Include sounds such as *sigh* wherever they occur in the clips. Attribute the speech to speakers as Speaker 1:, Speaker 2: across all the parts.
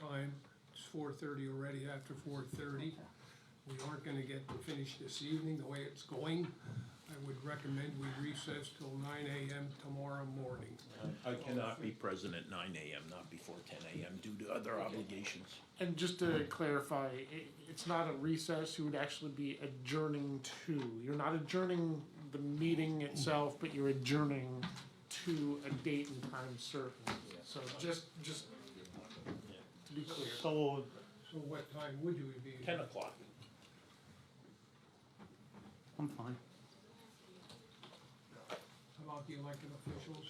Speaker 1: time. It's four thirty already, after four thirty. We aren't gonna get to finish this evening the way it's going. I would recommend we recess till nine AM tomorrow morning.
Speaker 2: I cannot be present at nine AM, not before ten AM due to other obligations.
Speaker 3: And just to clarify, it, it's not a recess, you would actually be adjourning to, you're not adjourning the meeting itself, but you're adjourning to a date and time certain. So just, just to be clear.
Speaker 4: So,
Speaker 1: So what time would you be?
Speaker 2: Ten o'clock.
Speaker 4: I'm fine.
Speaker 1: How about the elected officials?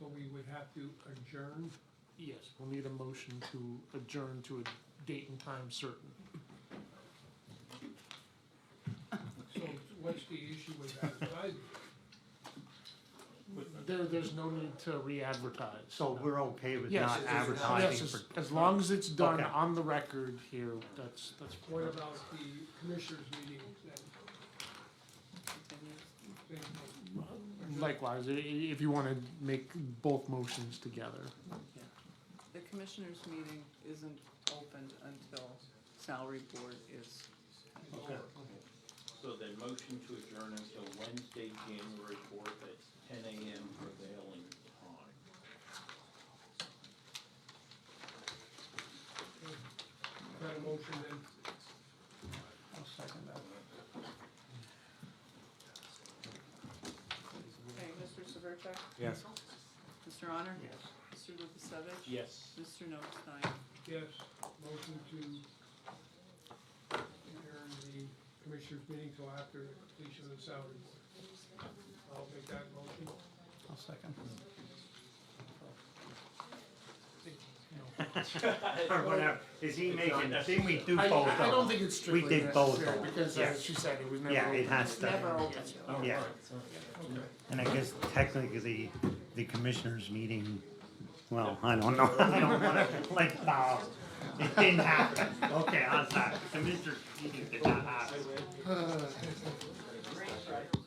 Speaker 1: So we would have to adjourn.
Speaker 3: Yes, we'll need a motion to adjourn to a date and time certain.
Speaker 1: So what's the issue with advertising?
Speaker 3: There, there's no need to re-advertise.
Speaker 4: So we're okay with
Speaker 3: Yes,
Speaker 4: not
Speaker 3: yes, Yes,
Speaker 4: advertising
Speaker 3: as,
Speaker 4: for,
Speaker 3: as long as it's done
Speaker 4: Okay.
Speaker 3: on the record here, that's, that's.
Speaker 1: What about the commissioners' meetings then? Same thing.
Speaker 3: Likewise, i- i- if you wanna make both motions together.
Speaker 5: The commissioners' meeting isn't opened until salary board is,
Speaker 6: So the motion to adjourn until Wednesday, January fourth at ten AM prevailing time.
Speaker 1: Got a motion then?
Speaker 5: okay, Mr. Severcek?
Speaker 4: Yes.
Speaker 5: Mr. Honor? Yes. Mr. Lukasevich?
Speaker 6: Yes.
Speaker 5: Mr. Notstein?
Speaker 1: Yes, motion to adjourn the commissioners' meeting till after completion of the salary board. I'll make that motion.
Speaker 4: I'll second. Or whatever, is he making, didn't we do both
Speaker 3: I,
Speaker 4: of
Speaker 3: I don't
Speaker 4: them?
Speaker 3: think it's strictly
Speaker 4: did both
Speaker 3: necessary,
Speaker 4: of them,
Speaker 3: because
Speaker 4: yeah.
Speaker 3: as she said, it was never.
Speaker 4: Yeah, it has
Speaker 5: Never
Speaker 4: to,
Speaker 5: open.
Speaker 4: yeah. And I guess technically, the commissioners meeting, well, I don't know, *laughs* I don't wanna, like, no, it didn't happen. Okay, I'm sorry, the commissioners meeting did not happen.